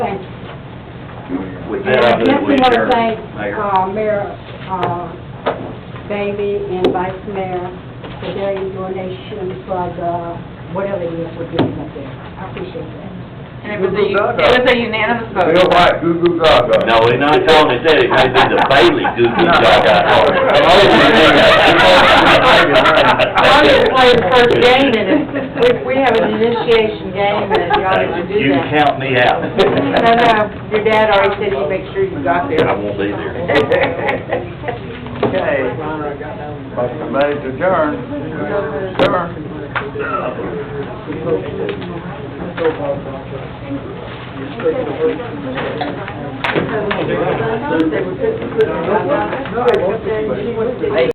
With And I that, guess I we would want to adjourn. thank Mayor. uh, Mayor uh, Bailey and Vice Mayor for their donation for the, whatever it is we're giving up there. I appreciate that. And it was a, it was a unanimous vote. Bill White, goo goo gaga. No, we're not calling it that, it may be the Bailey Goofy No. Gaga. I'm Oh, always saying that. I'm just playing first game, and if, we, we have an initiation game, and y'all need to do You that. count me out. No, no, your dad already said he'd make sure you got there. I won't be there. Okay. Motion made to adjourn. Adjourn. They were fifty foot, blah, blah, blah.